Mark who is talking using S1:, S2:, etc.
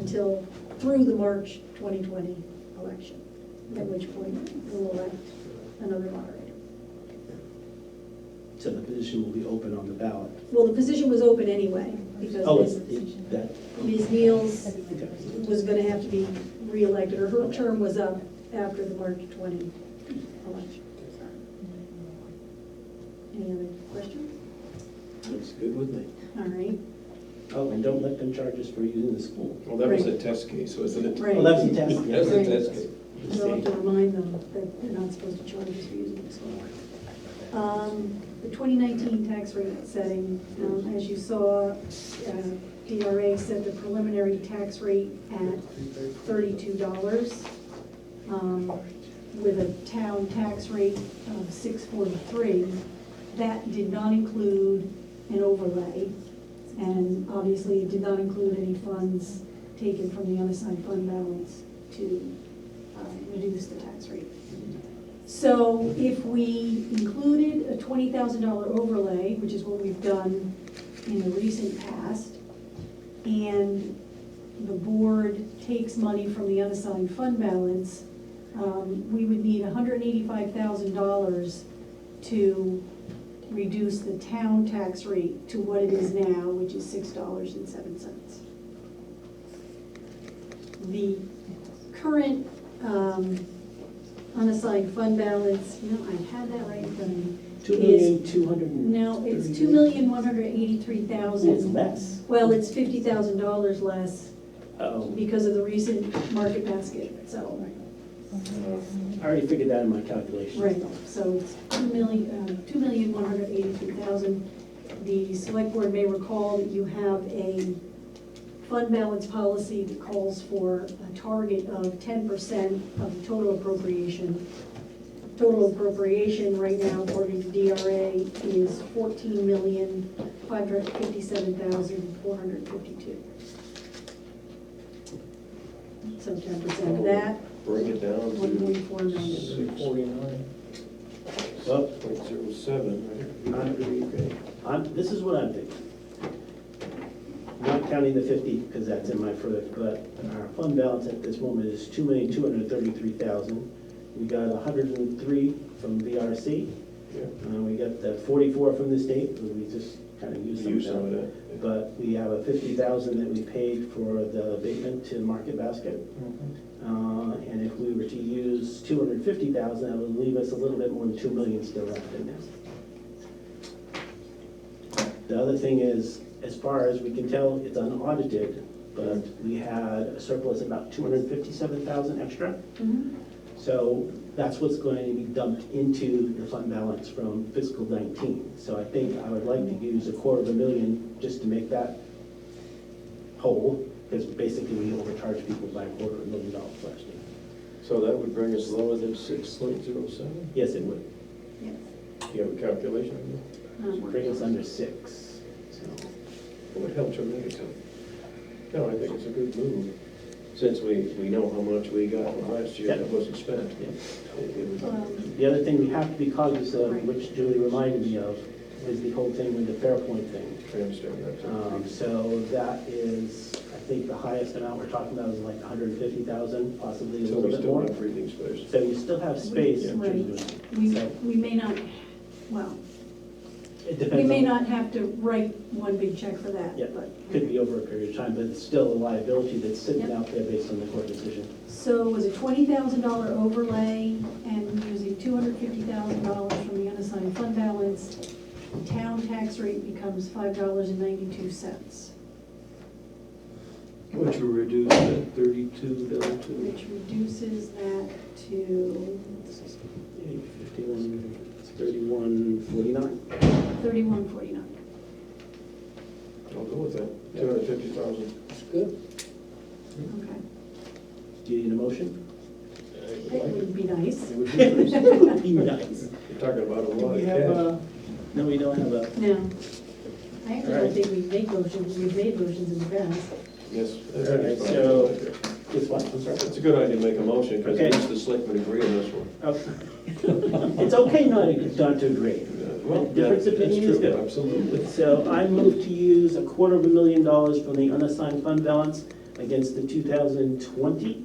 S1: until through the March 2020 election, at which point we'll elect another moderator.
S2: So the position will be open on the ballot.
S1: Well, the position was open anyway,
S2: Oh,
S1: because
S2: it's,
S1: Ms.
S2: it- that,
S1: Ms. Neal's
S2: okay.
S1: was going to have to be reelected, or her term was up after the March 20 election. Any other questions?
S2: Looks good with me.
S1: All right.
S2: Oh, and don't let them charge us for using the school.
S3: Well, that was a
S1: Right.
S3: test case, wasn't it?
S1: Right.
S2: Well, that was a test.
S3: That was a test case.
S1: We'll have to remind them that they're not supposed to charge us for using this one. Um, The 2019 tax rate setting, um, as you saw, uh, DRA set the preliminary tax rate at $32, um, with a town tax rate of 643. That did not include an overlay, and obviously it did not include any funds taken from the unassigned fund balance to uh, reduce the tax rate. So if we included a twenty thousand dollar overlay, which is what we've done in the recent past, and the board takes money from the unassigned fund balance, um, we would need hundred and eighty-five thousand dollars to reduce the town tax rate to what it is now, which is six dollars and seven cents. The current um, unassigned fund balance, you know, I had that right from,
S2: Two million, two hundred and.
S1: no, it's two
S2: thirty-
S1: million, one hundred eighty-three
S2: It's
S1: thousand.
S2: less.
S1: Well, it's fifty thousand dollars less
S2: Oh,
S1: because of the recent market basket, so,
S2: I already figured that in my calculations.
S1: right, so it's two million, uh, two million, one hundred eighty-three thousand. The select board may recall that you have a fund balance policy that calls for a target of ten percent of the total appropriation. Total appropriation right now, according to DRA, is fourteen million, five hundred fifty-seven thousand, four hundred fifty-two. So ten percent of that,
S3: Bring it down
S1: one
S3: to
S1: point four million.
S3: six forty-nine
S2: Well,
S3: point zero seven, right?
S2: I'm, this is what I'm thinking. Not counting the fifty, because that's in my further, but our fund balance at this moment is two million, two hundred and thirty-three thousand. We got a hundred and three from VRC,
S3: Yeah.
S2: and we got the forty-four from the state, and we just kind of used some
S3: Use some
S2: of
S3: of
S2: that.
S3: that.
S2: But we have a fifty thousand that we paid for the abatement to Market Basket. Uh, And if we were to use two hundred and fifty thousand, that would leave us a little bit more than two million still left in there. The other thing is, as far as we can tell, it's unaudited, but we had a surplus of about two hundred and fifty-seven thousand extra.
S1: Mhm.
S2: So that's what's going to be dumped into the fund balance from fiscal nineteen. So I think I would like to use a quarter of a million just to make that whole, because basically we overcharged people by a quarter of a million dollars last year.
S3: So that would bring us lower than six point zero seven?
S2: Yes, it would.
S1: Yes.
S3: Do you have a calculation? on
S1: Um,
S2: Bring us under six, so.
S3: that? It would help tremendously. No, I think it's a good move, since we, we know how much we got from last year that wasn't spent.
S2: yeah.
S3: It- it would-
S1: um,
S2: The other thing we have to be cognizant of, which Julie reminded me of, is the whole thing with the Fairpoint thing.
S3: Transfer, that's it.
S2: Um, So that is, I think the highest amount we're talking about is like 150,000, possibly a
S3: So
S2: little
S3: we
S2: bit
S3: still
S2: more.
S3: have breathing space.
S2: So you still have space. in
S1: Right.
S2: terms of-
S1: We,
S2: So
S1: we may not, well,
S2: it
S1: we
S2: depends
S1: may
S2: on-
S1: not have to write one big check for that,
S2: Yeah,
S1: but.
S2: could be over a period of time, but it's still a liability that's sitting
S1: Yep.
S2: out there based on the court decision.
S1: So it was a twenty thousand dollar overlay and using two hundred fifty thousand dollars from the unassigned fund balance, the town tax rate becomes five dollars and ninety-two cents,
S4: Which will reduce that thirty-two down to,
S1: which reduces that to
S2: Eight, 51, 31, 49.
S1: thirty-one forty-nine.
S3: I'll go with that, two hundred fifty thousand.
S1: Okay,
S2: Do you need a motion?
S1: that would be nice.
S3: It would be nice.
S2: Be nice.
S3: You're talking about a
S2: Do
S3: lot
S2: we
S3: of
S2: have uh,
S3: cash.
S2: a, no, we don't have a,
S1: No, I actually
S2: All right.
S1: don't think we've made motions, we've made motions in the past.
S3: Yes. I
S2: All
S3: think
S2: right,
S3: it's fine.
S2: so- this one, I'm sorry.
S3: It's a good idea to make a motion, because
S2: Okay.
S3: at least the selectmen agree on this one.
S2: Oh. It's okay not, not to agree.
S3: Well,
S2: Difference of
S3: that- that's
S2: opinion is
S3: true,
S2: good.
S3: Absolutely.
S2: So I move to use a quarter of a million dollars from the unassigned fund balance against the 2020